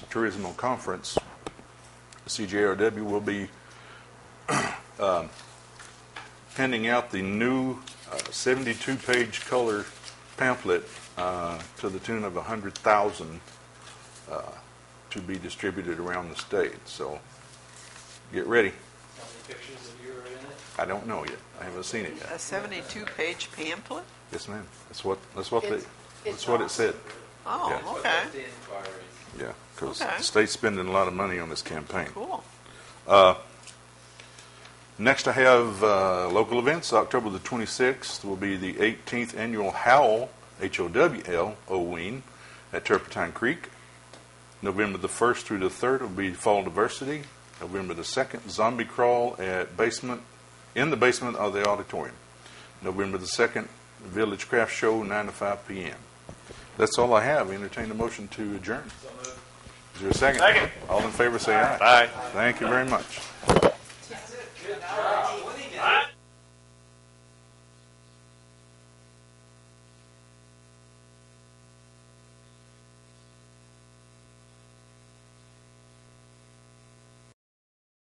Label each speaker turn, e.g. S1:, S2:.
S1: Turismo Conference, CJRW will be um, handing out the new 72-page color pamphlet uh, to the tune of 100,000 uh, to be distributed around the state. So get ready.
S2: How many pictures of you are in it?
S1: I don't know yet. I haven't seen it
S3: A
S1: yet.
S3: 72-page pamphlet?
S1: Yes, ma'am. That's what, that's what, they-
S4: It's-
S1: that's
S4: it's
S1: what it said. Yeah.
S3: Oh,
S2: But
S3: okay,
S2: that's the inquiry.
S1: Yeah, because the
S3: Okay.
S1: state's spending a lot of money on this campaign.
S3: cool.
S1: Next, I have uh, local events. October the 26th will be the 18th Annual Howl, H-O-W-L, Oween, at Turpentine Creek. November the 1st through the 3rd will be Fall Diversity. November the 2nd, Zombie Crawl at basement, in the basement of the auditorium. November the 2nd, Village Craft Show, 9 to 5 p.m. That's all I have. Entertain a motion to adjourn. Is there a second? Second. All in favor, say aye. Aye. Thank you very much.